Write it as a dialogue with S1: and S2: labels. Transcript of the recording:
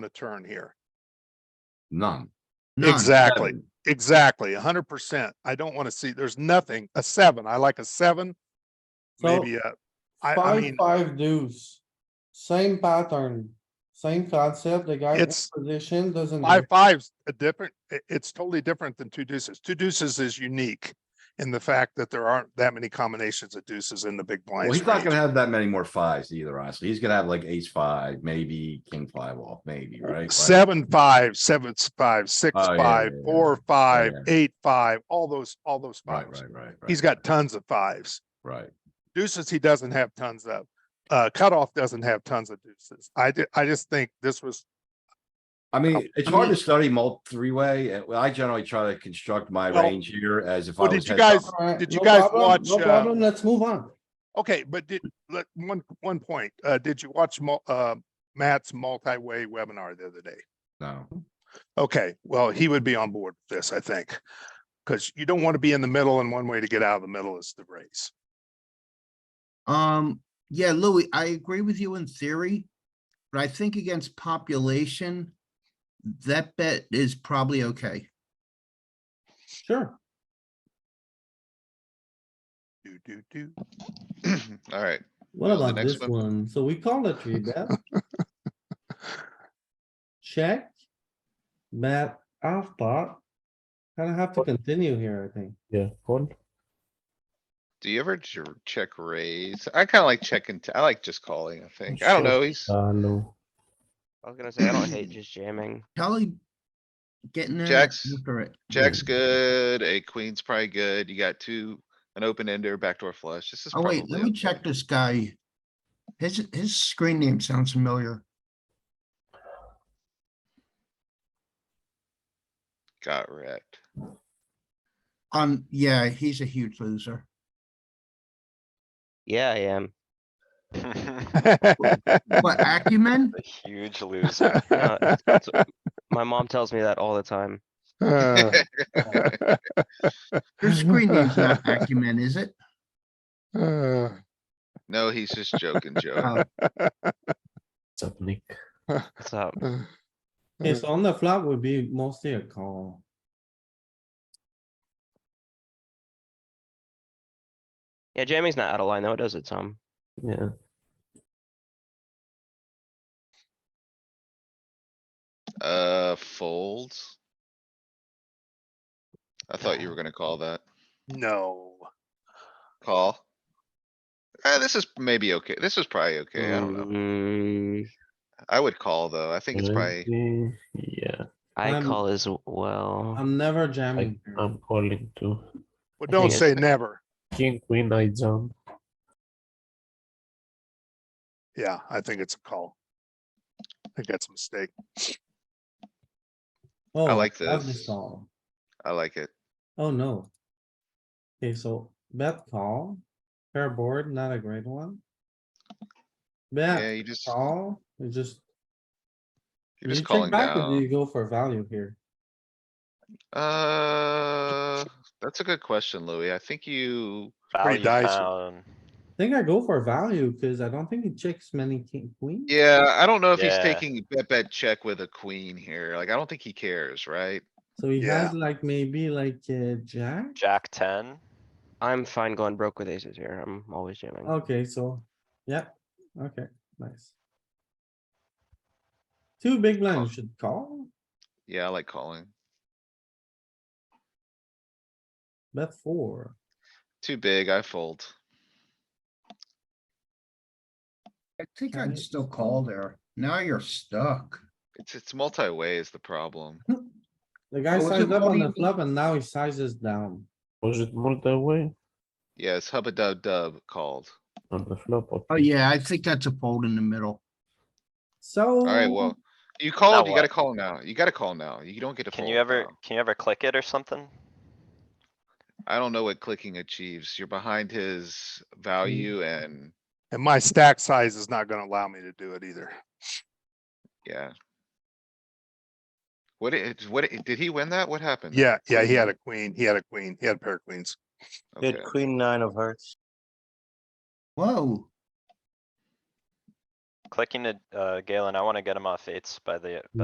S1: the turn here.
S2: None.
S3: None.
S1: Exactly, exactly, hundred percent. I don't want to see, there's nothing, a seven, I like a seven.
S4: So-
S1: Maybe a, I- I
S4: Five,
S1: mean-
S4: five deuce, same pattern, same concept, the guy in
S1: It's-
S4: position doesn't.
S1: five, five's a different, i- it's totally different than two deuces. Two deuces is unique. In the fact that there aren't that many combinations of deuces in the big
S2: Well,
S1: blinds.
S2: he's not
S1: range.
S2: gonna have that many more fives either, honestly. He's gonna have like ace five, maybe king five off, maybe, right? Like,
S1: Seven, five, seven, s- five, six,
S2: Oh, yeah,
S1: five,
S2: yeah, yeah.
S1: four, five,
S2: yeah.
S1: eight, five, all those, all those
S2: Right,
S1: fives.
S2: right, right.
S1: He's
S2: right,
S1: got tons of fives.
S2: Right.
S1: deuces he doesn't have tons of. Uh, cutoff doesn't have tons of deuces. I ju- I just think this was,
S2: I
S1: Oh,
S2: mean, it's
S4: I
S2: hard
S4: mean-
S2: to study mult three-way. uh, well, I generally try to construct my
S1: Well,
S2: range here as if I
S1: well,
S2: was.
S1: did you
S2: heads
S1: guys-
S2: up.
S4: Alright,
S1: did you
S4: no
S1: guys
S4: problem,
S1: watch,
S4: No
S1: uh,
S4: problem, let's move on.
S1: okay, but did, let, one, one point, uh, did you watch mul- uh, Matt's multi-way webinar the other day?
S2: No,
S1: Okay, well, he would be on board with this, I think. Cause you don't want to be in the middle and one way to get out of the middle is to raise.
S3: Um, yeah, Louis, I agree with you in theory, but I think against population, that bet is probably okay.
S4: Sure,
S1: Do, do, do.
S5: Alright,
S4: what
S5: Well, the
S4: about
S5: next
S4: this
S5: one.
S4: one? So we call it three bet. Check. Bet half pot. Gonna have to continue here, I think.
S6: Yeah, one.
S5: do you ever ch- check raise? I kinda like checking, t- I like just calling, I think. I
S6: sure.
S5: don't know, he's,
S6: Uh, no.
S7: I was gonna say, I don't hate just jamming.
S3: Kelly getting there.
S5: Jacks.
S3: after it.
S5: Jack's good, a queen's probably good, you got two, an open ender, backdoor flush, this is
S3: Oh,
S5: probably.
S3: wait, let me
S5: okay.
S3: check this guy. His, his screen name sounds familiar.
S5: Got wrecked.
S3: Um, yeah, he's a huge loser.
S7: Yeah, I am.
S3: What acumen?
S7: A huge loser. No, it's- it's- My mom tells me that all the time.
S1: Uh,
S3: Your screen name's not acumen, is it?
S1: uh,
S5: No, he's just joking, Joe.
S3: Oh,
S6: What's up, Nick?
S7: What's up?
S1: uh,
S4: Okay, so on the flop would be mostly a call.
S7: Yeah, jamming's not out of line though. It does it some.
S6: Yeah.
S5: Uh, folds. I thought you were gonna call that.
S1: No.
S5: Call. Uh, this is maybe okay. This is probably okay. I don't know.
S7: Mm,
S5: I would call though. I think it's probably.
S6: maybe, Yeah,
S7: I
S4: I'm-
S7: call as well.
S4: I'm never
S6: I, um,
S4: jamming.
S3: Hmm.
S4: here.
S6: I'm calling too.
S1: Well,
S6: I
S1: don't
S6: think
S1: say never.
S6: King, queen, I jump.
S1: Yeah, I think it's a call. I think that's a mistake.
S4: Oh,
S5: like
S4: love
S5: this.
S4: call.
S5: I like it.
S4: Oh, no. Okay, so bet call, pair board, not a great one.
S5: Yeah,
S4: Bet
S5: you just,
S4: call, you just.
S5: you're
S4: do
S5: just
S4: you check
S5: calling
S4: back or Do
S5: down.
S4: you go for value here?
S5: Uh, that's a good question, Louis. I think you,
S1: Pretty dicey.
S8: um,
S4: I think I go for value because I don't think he checks many king queen.
S5: yeah, I don't know if he's
S8: Yeah.
S5: taking bet, bet check with a queen here. Like, I don't think he cares, right?
S4: So he
S1: Yeah.
S4: has like maybe like a jack.
S8: Jack ten.
S7: I'm fine going broke with aces here. I'm always jamming.
S4: Okay, so, yeah, okay, nice. Two big blinds should call,
S5: Yeah, I like calling.
S4: bet four.
S5: Too big, I fold.
S3: I think
S4: Alright.
S3: I'd still call there. Now you're stuck.
S5: It's, it's multi-way is the problem.
S4: The guy
S3: Oh, is it
S4: sized up on
S3: only-
S4: the flop and now he sizes down.
S6: Was it multi-way
S5: Yeah, it's hubba dub dub called.
S6: on the flop?
S3: Oh, yeah, I think that's a fold in the middle.
S4: So.
S5: Alright, well, you called, you gotta
S8: what?
S5: call now. You gotta call now. You don't get to
S8: Can
S5: fold
S8: you ever,
S5: now.
S8: can you ever click it or something?
S5: I don't know what clicking achieves. You're behind his value and,
S1: And my stack size is not gonna allow me to do it either.
S5: yeah. What it, what, it- did he win that? What happened?
S1: Yeah, yeah, he had a queen, he had a queen, he had a pair of queens.
S5: Okay.
S3: Whoa.
S8: clicking to, uh, Galen, I wanna get him off eights by the,